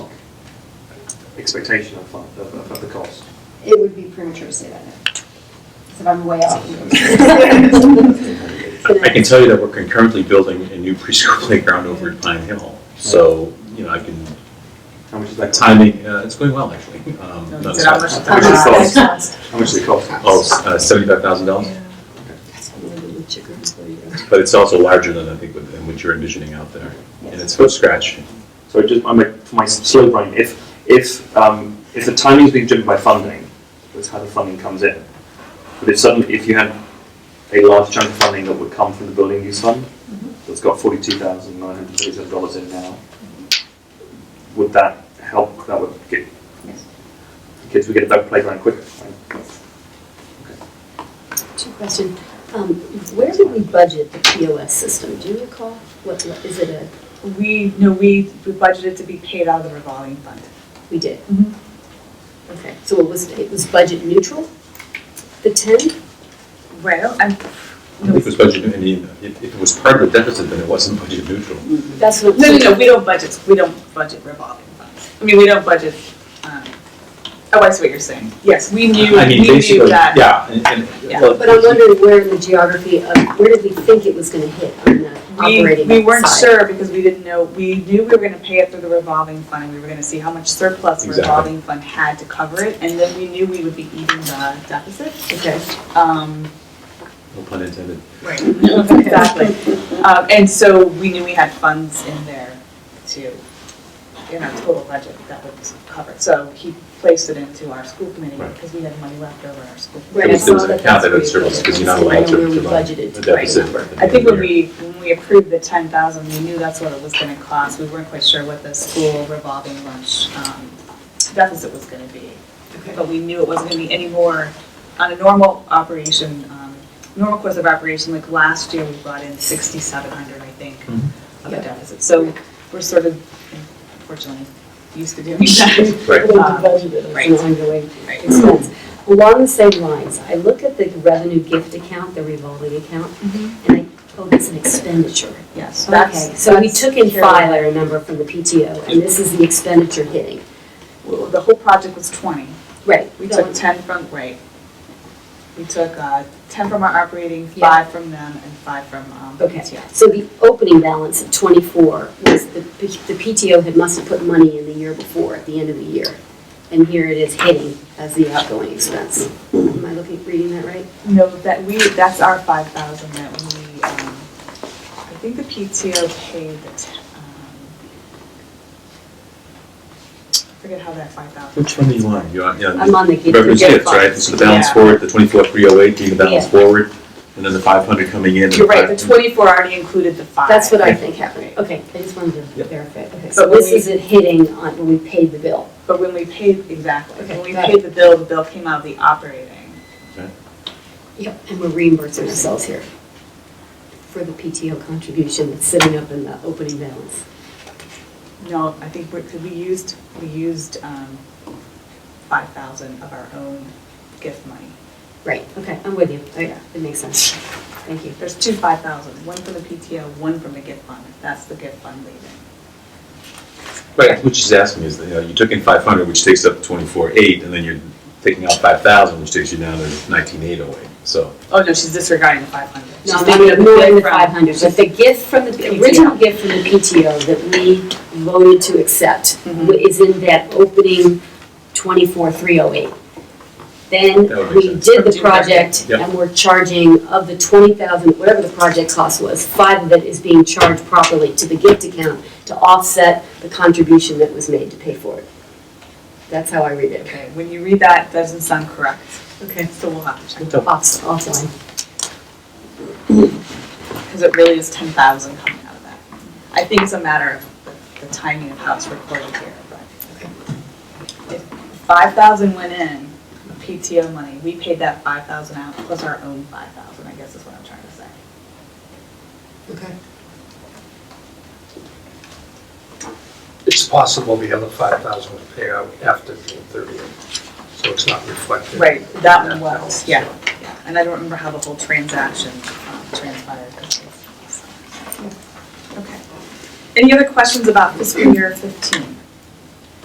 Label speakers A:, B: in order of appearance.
A: expectation of, fund- of, of- of the cost.
B: It would be premature to say that now. 'Cause if I'm way off.
C: I can tell you that we're concurrently building a new preschool playground over at Pine Hill. So, you know, I can,
A: How much is that?
C: that timing, uh, it's going well, actually. Um, no, it's
A: How
C: not-
A: much does it cost?
B: cost?
A: How much does it cost?
C: Oh, seventy-five thousand dollars,
D: It's
C: but it's also larger than I think what- than what you're envisioning out there. And it's from scratch.
A: So just, I'm, a- for my s- slow brain, if, if, um, if the timing's being driven by funding, that's how the funding comes in. But if suddenly, if you had a large chunk of funding that would come from the building use fund, that's got forty-two thousand nine hundred thirty-seven dollars in now, would that help, that would get,
B: Yes.
A: kids would get a better playground quicker, right?
D: Two question, um, where did we budget the POS system? Do you recall? What, what- is it a,
E: We, no, we we budgeted to be paid out of the revolving fund.
D: we did?
E: Mhm.
B: Mm-hmm.
D: Okay, so it was, it was budget neutral? The ten?
E: Well, I'm,
C: I think it was budget, I mean, if if it was part of the deficit, then it wasn't budget neutral.
D: That's what.
E: no, no, no, we don't budget, we don't budget revolving funds. I mean, we don't budget, um, oh, I see what you're saying. Yes, we knew,
C: I
E: we
C: mean,
E: knew
C: basically,
E: that.
C: yeah. and- and-
E: Yeah.
C: well,
D: But I'm wondering where in the geography of, where did we think it was gonna hit on the
E: We,
D: operating
E: we weren't
D: side?
E: sure because we didn't know, we knew we were gonna pay it through the revolving fund and we were gonna see how much surplus the
C: Exactly.
E: revolving fund had to cover it. And then we knew we would be eating the deficit.
D: Okay.
E: Um,
C: No pun intended.
E: Right. Exactly. Um, And so we knew we had funds in there to, in our total budget that would cover. it. So he placed it into our school committee
C: Right.
E: because we had money left over in our school.
D: Right, I
C: There was, there
D: saw
C: was an
D: that
C: account that had
D: that's where
C: surplus because you're not
D: I
C: allowed
D: know where
C: to
D: we
C: provide
D: budgeted
C: a
D: to write
C: deficit.
D: it.
C: at the
E: I
C: end of
E: think
C: the
E: when
C: year.
E: we, when we approved the ten thousand, we knew that's what it was gonna cost. We weren't quite sure what the school revolving lunch um, deficit was gonna be. But we knew it wasn't gonna be any more on a normal operation, um, normal course of operation, like last year, we brought in sixty-seven hundred, I think,
C: Mhm.
E: of a
D: Yeah.
E: deficit. So we're sort of, unfortunately, used to doing that.
C: Right.
D: Well, the budget is an
E: Right.
D: ongoing
E: Right.
D: expense. Along the same lines, I look at the revenue gift account, the revolving account, and I, oh, that's an expenditure.
E: Yes, that's.
D: Okay, so we
E: that's
D: took in
E: carried over.
D: five, I remember, from the PTO, and this is the expenditure hitting.
E: Well, The whole project was twenty.
D: Right.
E: We took ten from, right. We took uh, ten from our operating,
D: Yeah.
E: five from them, and five from um,
D: Okay.
E: PTS.
D: So the opening balance of 24 was, the the PTO had must have put money in the year before, at the end of the year. And here it is hitting as the outgoing expense. Am I looking, reading that right?
E: No, that we, that's our five thousand that we, um, I think the PTO paid the, t- um, I forget how that five thousand.
C: Which one do you want? You want, yeah.
D: I'm on the gift.
C: Reference
E: gift
C: gifts, right?
E: funds.
C: So the balance
E: Yeah.
C: forward, the twenty-four, three oh eight being the balance
D: Yeah.
C: forward, and then the five hundred coming in. and
E: You're right, the
C: 500
E: twenty-four already included the five.
D: That's what I think happened. Okay, I just wanted to
C: Yep.
D: verify. Okay,
E: But
D: so
E: when
D: this
E: we-
D: is it hitting on when we paid the bill.
E: But when we paid, exactly,
D: Okay,
E: when we
D: got
E: paid the bill, the bill came out of the operating.
D: Yep. And we're reimbursing ourselves here for the PTO contribution that's sitting up in the opening balance.
E: No, I think we, 'cause we used, we used, um, five thousand of our own gift money.
D: Right, okay, I'm with you. Okay,
E: Yeah.
D: It makes sense. Thank you.
E: There's two five thousands, one from the PTO, one from the gift fund, that's the gift fund leaving.
C: Right, what she's asking is, that, you know, you took in five hundred, which takes up twenty-four, eight, and then you're taking out five thousand, which takes you down to nineteen, eight oh eight, so.
E: Oh, no, she's disregarding the five hundred.
D: No, I'm ignoring the 500, but the gift from the, the original gift from the PTO that we voted to accept
E: Mhm.
D: wa- is in that opening 24308. Then
C: That would make
D: we
C: sense.
D: did the
E: From June
D: project
C: Yep.
D: and we're charging of the 20,000, whatever the project cost was, five of it is being charged properly to the gift account to offset the contribution that was made to pay for it. That's how I read it.
E: Okay, when you read that, it doesn't sound correct,
D: Okay.
E: so we'll have to check,
D: Off- Offline.
E: because it really is ten thousand coming out of that. I think it's a matter of the- the timing of how it's recorded here, but. If five thousand went in, PTO money, we paid that five thousand out, plus our own five thousand, I guess is what I'm trying to say.
D: Okay.
F: It's possible the other five thousand will pay out after June thirtieth, so it's not reflected.
E: Right, that one was, yeah, yeah. And I don't remember how the whole transaction um, transpired. Okay. Any other questions about fiscal year 15?